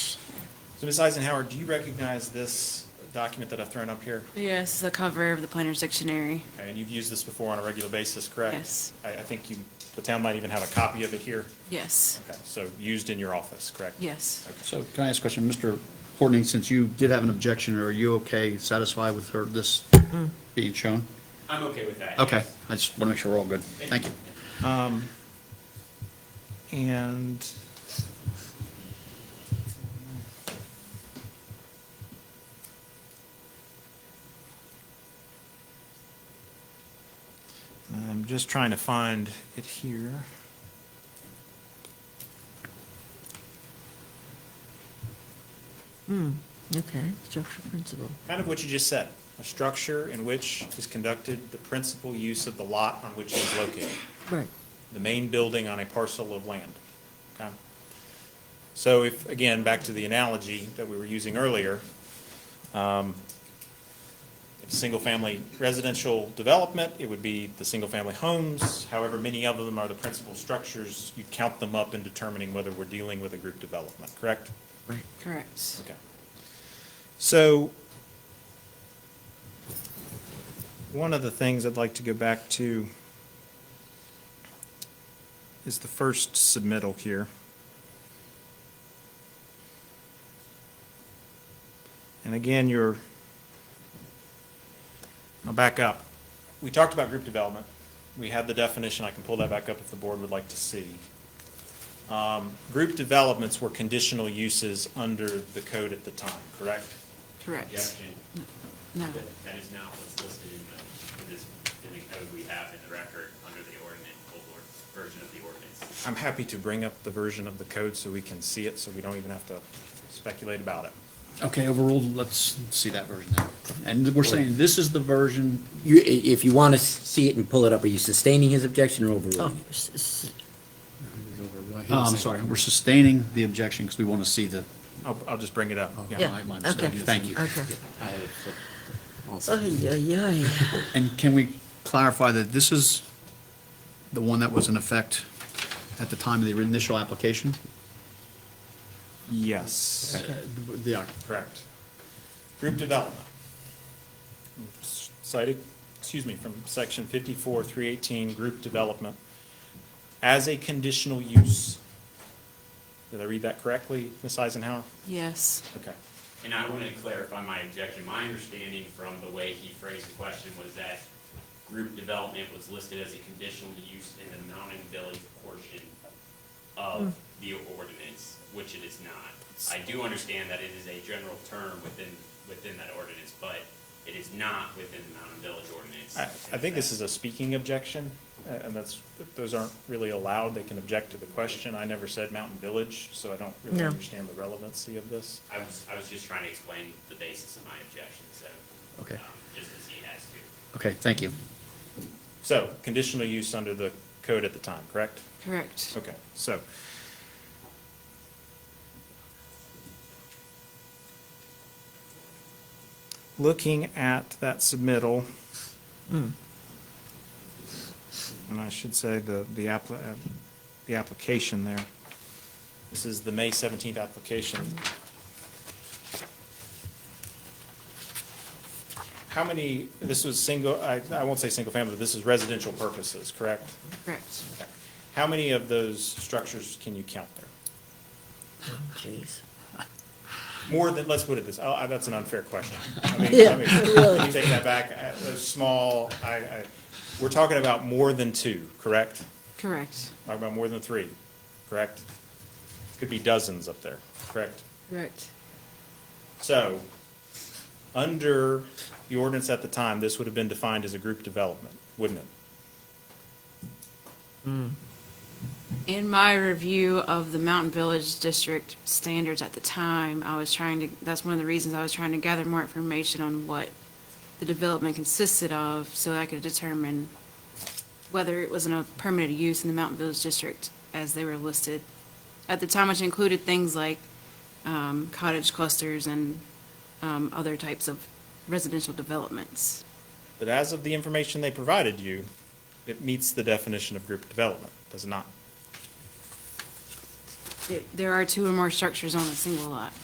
So Ms. Eisenhower, do you recognize this document that I've thrown up here? Yes, the cover of the Planner's Dictionary. Okay, And you've used this before on a regular basis, correct? Yes. I, I think you, the town might even have a copy of it here. Yes, Okay, so used in your office, correct? yes. So can I ask a question? Mr. Horning, since you did have an objection, are you okay, satisfied with her, this being shown? I'm okay with that. Okay, yes. I just want to make sure we're all good. Thank you. And I'm just trying to find it here. Hmm, Okay, structure principle. Kind of what you just said, a structure in which is conducted the principal use of the lot on which it is located. Right. the main building on a parcel of land. Okay? So if, again, back to the analogy that we were using earlier, um, if single-family residential development, it would be the single-family homes, however many of them are the principal structures, you count them up in determining whether we're dealing with a group development, correct? Correct. Okay. So, one of the things I'd like to go back to is the first submittal here. And again, you're, I'll back up. We talked about group development. We had the definition. I can pull that back up if the board would like to see. Um, Group developments were conditional uses under the code at the time, correct? Correct. Objection. No, That that is not what's listed in the, in this, in the code we have in the record under the ordinance, old or, version of the ordinance. I'm happy to bring up the version of the code so we can see it, so we don't even have to speculate about it. Okay, overruled, let's see that version now. And we're saying this is the version, You, i- if you want to see it and pull it up, are you sustaining his objection or Oh, overruling? s- s- oh, I'm sorry, we're sustaining the objection because we want to see the, I'll, I'll just bring it up. Oh, Yeah. my my Okay. mistake, thank you. Okay. Oh, Also, Ay, ay, ay. And can we clarify that this is the one that was in effect at the time of the initial application? Yes. Uh, The, Correct. Group development. Cited, excuse me, from section fifty-four, three eighteen, group development, as a conditional use. Did I read that correctly, Ms. Eisenhower? yes. Okay. And I want to clarify my objection. My understanding from the way he phrased the question was that group development was listed as a conditional use in the Mountain Village portion of the ordinance, which it is not. I do understand that it is a general term within, within that ordinance, but it is not within the Mountain Village ordinance. I, I think this is a speaking objection, uh, and that's, those aren't really allowed, they can object to the question. I never said Mountain Village, so I don't really No. understand the relevancy of this. I was, I was just trying to explain the basis of my objection, so. Okay. um, Just as he has to. okay, thank you. So, conditional use under the code at the time, correct? Correct. Okay, so. Looking at that submittal. And I should say the, the appli- uh, the application there. This is the May seventeenth application. How many, this was single, I, I won't say single family, but this is residential purposes, correct? Correct. How many of those structures can you count there? Jeez. More than, let's put it this, oh, that's an unfair question. I mean, Yeah, I mean, let me take that back, Uh, those small, I, I, we're talking about more than two, correct? Correct. Talking about more than three, correct? Could be dozens up there, correct? Correct. So, under the ordinance at the time, this would have been defined as a group development, wouldn't it? In my review of the Mountain Village District standards at the time, I was trying to, that's one of the reasons I was trying to gather more information on what the development consisted of, so I could determine whether it was in a permitted use in the Mountain Village District as they were listed at the time, which included things like um, cottage clusters and um, other types of residential developments. But as of the information they provided you, it meets the definition of group development, does it not? There- There are two or more structures on a single lot.